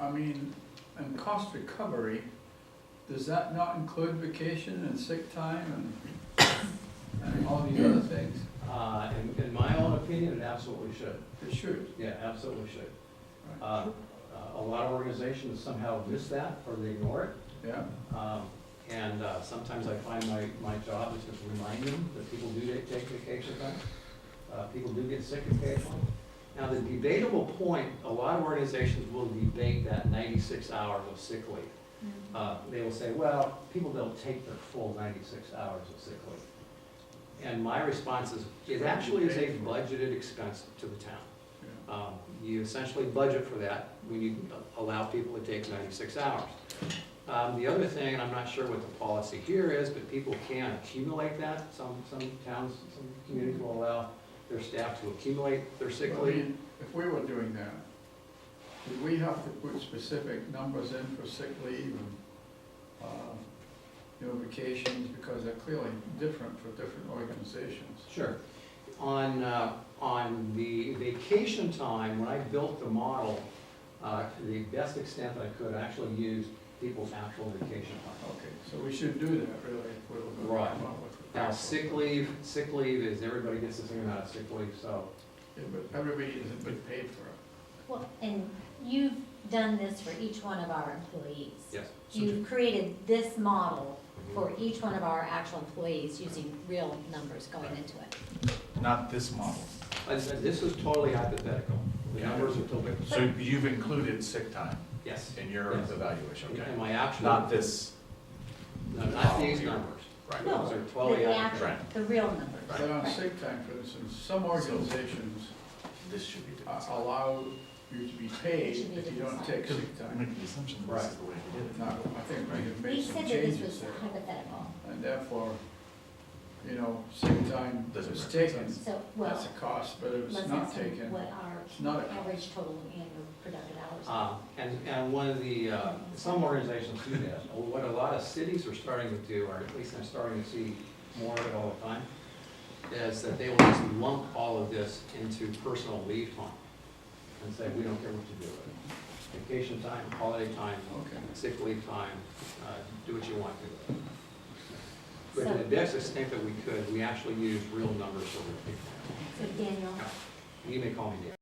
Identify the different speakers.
Speaker 1: I mean, and cost recovery, does that not include vacation and sick time and, and all these other things?
Speaker 2: Uh, in, in my own opinion, it absolutely should.
Speaker 1: It should.
Speaker 2: Yeah, absolutely should. Uh, a lot of organizations somehow miss that or they ignore it.
Speaker 1: Yeah,
Speaker 2: Um, and, uh, sometimes I find my, my job is to remind them that people do take take vacation time. Uh, people do get sick occasionally. Now, the debatable point, a lot of organizations will debate that ninety-six hours of sick leave. Uh, they will say, well, people don't take their full ninety-six hours of sick leave. And my response is, it actually is a budgeted expense to the town.
Speaker 1: yeah.
Speaker 2: Um, You essentially budget for that when you allow people to take 96 hours. Um, The other thing, and I'm not sure what the policy here is, but people can accumulate that. Some, some towns, some communities will allow their staff to accumulate their sick
Speaker 1: I
Speaker 2: leave.
Speaker 1: mean, If we were doing that, would we have to put specific numbers in for sick leave and, uh, you know, vacations, because they're clearly different for different organizations?
Speaker 2: Sure. On, uh, on the vacation time, when I built the model, uh, to the best extent I could, I actually used people's actual vacation time.
Speaker 1: Okay, so we should do that, really, if we were gonna come up with. a
Speaker 2: Now, sick leave, sick leave is, everybody gets the same amount of sick leave, so
Speaker 1: Yeah, but everybody isn't been paid for it.
Speaker 3: Well, and you've done this for each one of our employees.
Speaker 2: Yes.
Speaker 3: You've created this model
Speaker 2: Mm-hmm.
Speaker 3: for each one of our actual employees using real numbers going into it.
Speaker 4: Not this model.
Speaker 2: I said, This is totally hypothetical. The numbers are totally,
Speaker 4: So you've included sick time
Speaker 2: yes.
Speaker 4: in your
Speaker 2: Yes.
Speaker 4: evaluation, okay?
Speaker 2: And my actual,
Speaker 4: Not
Speaker 2: no,
Speaker 4: this,
Speaker 2: not these numbers.
Speaker 4: right?
Speaker 3: No.
Speaker 2: Those are
Speaker 3: The-
Speaker 2: totally
Speaker 3: the
Speaker 2: accurate.
Speaker 4: Right.
Speaker 3: actual- The real numbers.
Speaker 1: But on sick time, for instance, some organizations
Speaker 4: This should be
Speaker 1: uh,
Speaker 4: different.
Speaker 1: allow you to be paid if you don't take sick
Speaker 4: We're
Speaker 1: time.
Speaker 4: making the assumption that this is the way we did it. Um,
Speaker 1: Now, I think we have
Speaker 3: We
Speaker 1: made some
Speaker 3: said that this
Speaker 1: changes
Speaker 3: was
Speaker 1: there,
Speaker 3: hypothetical,
Speaker 1: and therefore, you know, sick time
Speaker 4: Doesn't
Speaker 1: is
Speaker 4: represent
Speaker 1: taken,
Speaker 4: us.
Speaker 3: so,
Speaker 1: that's a
Speaker 3: well,
Speaker 1: cost, but if it's
Speaker 3: let's
Speaker 1: not
Speaker 3: ask them
Speaker 1: taken,
Speaker 3: what our
Speaker 1: it's not a
Speaker 3: average total annual productive hours. are.
Speaker 2: Uh, And, and one of the, uh, some organizations do that. What a lot of cities are starting to do, or at least I'm starting to see more of it all the time, is that they will just lump all of this into personal leave time and say, we don't care what you do with it. Vacation time, holiday time,
Speaker 1: Okay.
Speaker 2: sick leave time, uh, do what you want to. do. But
Speaker 3: So-
Speaker 2: to the best extent that we could, we actually use real numbers for real people.
Speaker 3: So Daniel,
Speaker 2: You may call me Dan.